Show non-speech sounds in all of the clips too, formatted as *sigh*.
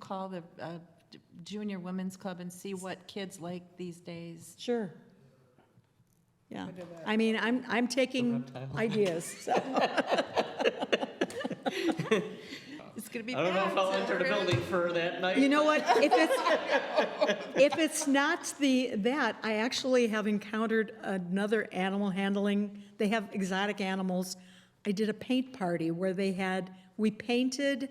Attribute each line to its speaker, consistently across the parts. Speaker 1: call the uh, d- Junior Women's Club and see what kids like these days?
Speaker 2: Sure. Yeah, I mean, I'm, I'm taking ideas, so.
Speaker 1: It's going to be
Speaker 3: I don't know if I'll
Speaker 1: packed.
Speaker 3: enter the building for that night.
Speaker 2: You know what, if it's, if it's not the, that, I actually have encountered another animal handling, they have exotic animals. I did a paint party where they had, we painted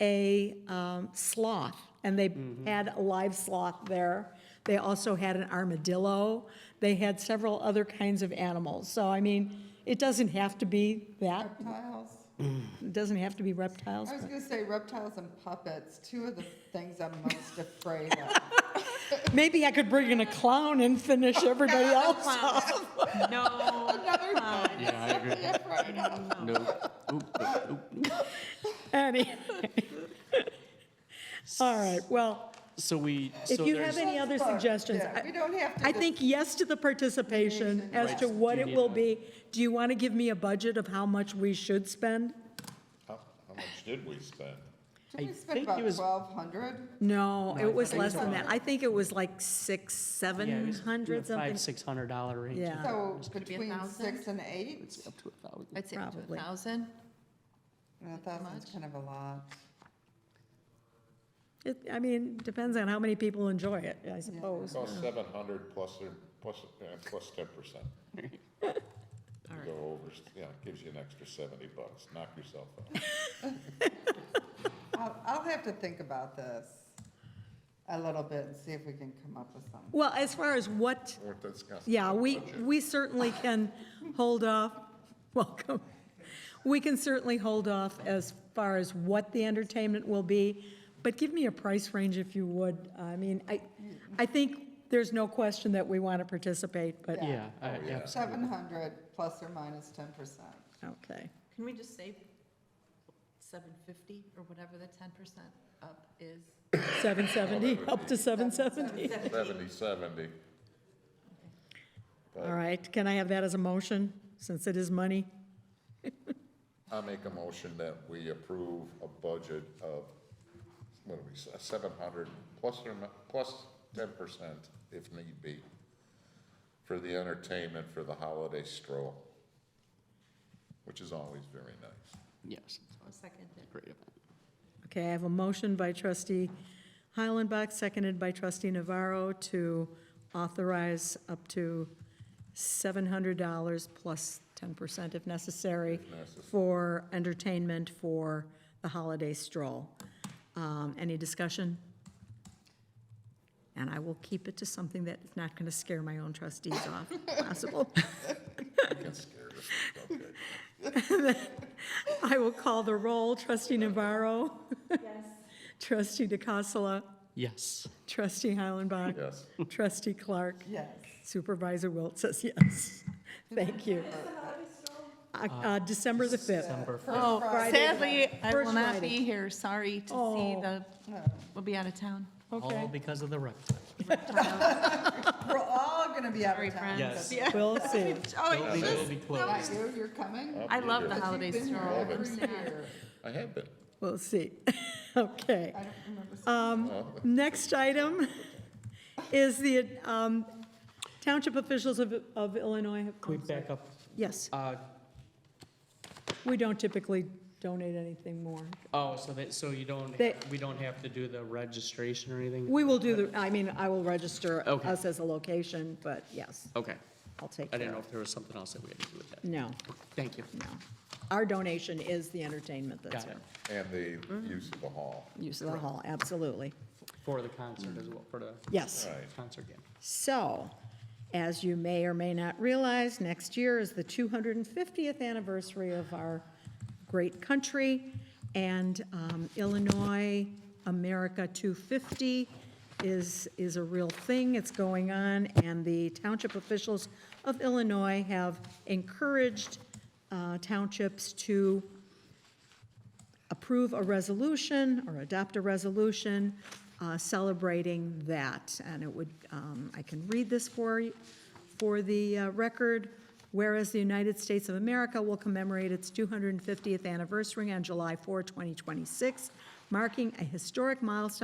Speaker 2: a um, sloth, and they had a live sloth there. They also had an armadillo, they had several other kinds of animals, so I mean, it doesn't have to be that,
Speaker 4: Reptiles.
Speaker 2: it doesn't have to be reptiles.
Speaker 4: I was
Speaker 2: but-
Speaker 4: gonna say reptiles and puppets, two of the things I'm most afraid of.
Speaker 2: Maybe I could bring in a clown and
Speaker 4: *laughs*
Speaker 2: finish everybody else off.
Speaker 1: No,
Speaker 4: Another one
Speaker 5: Yeah, I agree.
Speaker 4: I'm afraid of.
Speaker 5: No. Oop, oop, oop.
Speaker 4: *laughs*
Speaker 2: Anyway. All right, well,
Speaker 5: So we,
Speaker 2: if
Speaker 5: so
Speaker 2: you have
Speaker 5: there's,
Speaker 2: any other suggestions,
Speaker 4: Yeah, We
Speaker 2: I-
Speaker 4: don't have to.
Speaker 2: I think yes to the participation as to what it will be. Do you want to give me a budget of how much we should spend?
Speaker 6: How, how much did we spend?
Speaker 4: Did
Speaker 3: I
Speaker 4: we
Speaker 3: think
Speaker 4: spend
Speaker 3: it
Speaker 4: about
Speaker 3: was-
Speaker 4: twelve hundred?
Speaker 2: No,
Speaker 3: I
Speaker 2: it was
Speaker 3: think
Speaker 2: less
Speaker 3: so.
Speaker 2: than that. I think it was like six,
Speaker 3: yeah, it
Speaker 2: seven
Speaker 3: was
Speaker 2: hundred
Speaker 3: in the Five,
Speaker 2: something.
Speaker 3: six hundred dollar range.
Speaker 2: Yeah.
Speaker 4: So
Speaker 1: gonna be a
Speaker 4: between
Speaker 1: thousand?
Speaker 4: six and eight,
Speaker 5: it's up to a thousand.
Speaker 1: I'd say up to a
Speaker 2: Probably.
Speaker 1: thousand.
Speaker 4: a thousand's kind of a lot.
Speaker 2: It- I mean, depends on how many people enjoy it, I suppose.
Speaker 6: About seven hundred plus, or- plus, uh, plus ten percent. You go over, yeah, it gives you an extra seventy bucks, knock yourself *laughs* out.
Speaker 4: I'll, I'll have to think about this a little bit and see if we can come up with something.
Speaker 2: Well, as far as what
Speaker 6: Worth
Speaker 2: *laughs*
Speaker 6: discussing.
Speaker 2: Yeah, we, we certainly can hold off, *laughs* welcome. We can certainly hold off as far as what the entertainment will be, but give me a price range if you would. I mean, I, I think there's no question that we want to participate, but,
Speaker 3: Yeah, I- Oh, yeah.
Speaker 4: Seven hundred plus or minus ten percent.
Speaker 2: okay.
Speaker 1: Can we just say seven fifty or whatever the ten percent up is?
Speaker 2: 770, up to 770.
Speaker 6: Seventy, seventy.
Speaker 2: All right, can I have that as a motion, since it is money?
Speaker 6: I make a motion that we approve a budget of, what do we, seven hundred plus or, mi- plus ten percent if need be for the entertainment for the holiday stroll, which is always very nice.
Speaker 5: Yes,
Speaker 1: I'll second it.
Speaker 5: great event.
Speaker 2: Okay, I have a motion by trustee Heilenbach, seconded by trustee Navarro to authorize up to $700 plus 10% if necessary for entertainment for the holiday stroll. Um, Any discussion? And I will keep it to something that's not going to scare my own trustees off, *laughs* if possible.
Speaker 6: Get scared of it, okay.
Speaker 2: *laughs* I will call the roll. Trustee Navarro? Yes. Trustee DeCassola?
Speaker 3: Yes.
Speaker 2: Trustee Heilenbach.
Speaker 6: Yes.
Speaker 2: Trustee Clark.
Speaker 4: Yes.
Speaker 2: Supervisor Wilt says yes. *laughs* Thank you. Uh, uh, December the 5th.
Speaker 3: Number four.
Speaker 1: Oh,
Speaker 4: Friday.
Speaker 1: sadly, I
Speaker 2: First
Speaker 1: will not
Speaker 2: Friday.
Speaker 1: be here. Sorry to see
Speaker 2: Oh.
Speaker 1: the,
Speaker 4: No.
Speaker 1: we'll be out of town.
Speaker 3: All
Speaker 2: Okay,
Speaker 3: because of the reptile.
Speaker 4: We're all gonna be out
Speaker 1: Sorry,
Speaker 4: of town.
Speaker 1: friends.
Speaker 3: Yes.
Speaker 2: we'll see.
Speaker 1: Oh, it's
Speaker 3: Building will be
Speaker 4: Not
Speaker 3: closed.
Speaker 4: you, you're coming?
Speaker 1: I love the
Speaker 6: But you've
Speaker 1: holiday
Speaker 4: You've been here
Speaker 1: stroll.
Speaker 4: every
Speaker 1: I'm sad.
Speaker 4: year.
Speaker 6: I have been.
Speaker 2: We'll see. *laughs* Okay. Um,
Speaker 4: I don't remember. seeing
Speaker 2: Next item is the um, Township officials of of Illinois have.
Speaker 3: Can we back up?
Speaker 2: Yes,
Speaker 3: Uh,
Speaker 2: we don't typically donate anything more.
Speaker 3: oh, so that, so you don't,
Speaker 2: They-
Speaker 3: we don't have to do the registration or anything?
Speaker 2: We will do the, I mean, I will register
Speaker 3: Okay.
Speaker 2: us as a location, but yes,
Speaker 3: Okay.
Speaker 2: I'll take
Speaker 3: I
Speaker 2: care
Speaker 3: didn't know
Speaker 2: of
Speaker 3: if there was something else that we had to do with that.
Speaker 2: No,
Speaker 3: Thank you.
Speaker 2: no. Our donation is the entertainment that's
Speaker 3: Got it.
Speaker 2: here.
Speaker 6: And the use of the hall.
Speaker 2: Use of the hall, absolutely.
Speaker 3: For the concert as well, for the
Speaker 2: Yes.
Speaker 6: Right.
Speaker 3: concert game.
Speaker 2: So, as you may or may not realize, next year is the 250th anniversary of our great country, and um, Illinois America 250 is, is a real thing. It's going on, and the township officials of Illinois have encouraged uh, townships to approve a resolution or adopt a resolution uh, celebrating that. And it would, um, I can read this for, y- for the uh, record. Whereas the United States of America will commemorate its 250th anniversary on July 4, 2026, marking a historic milestone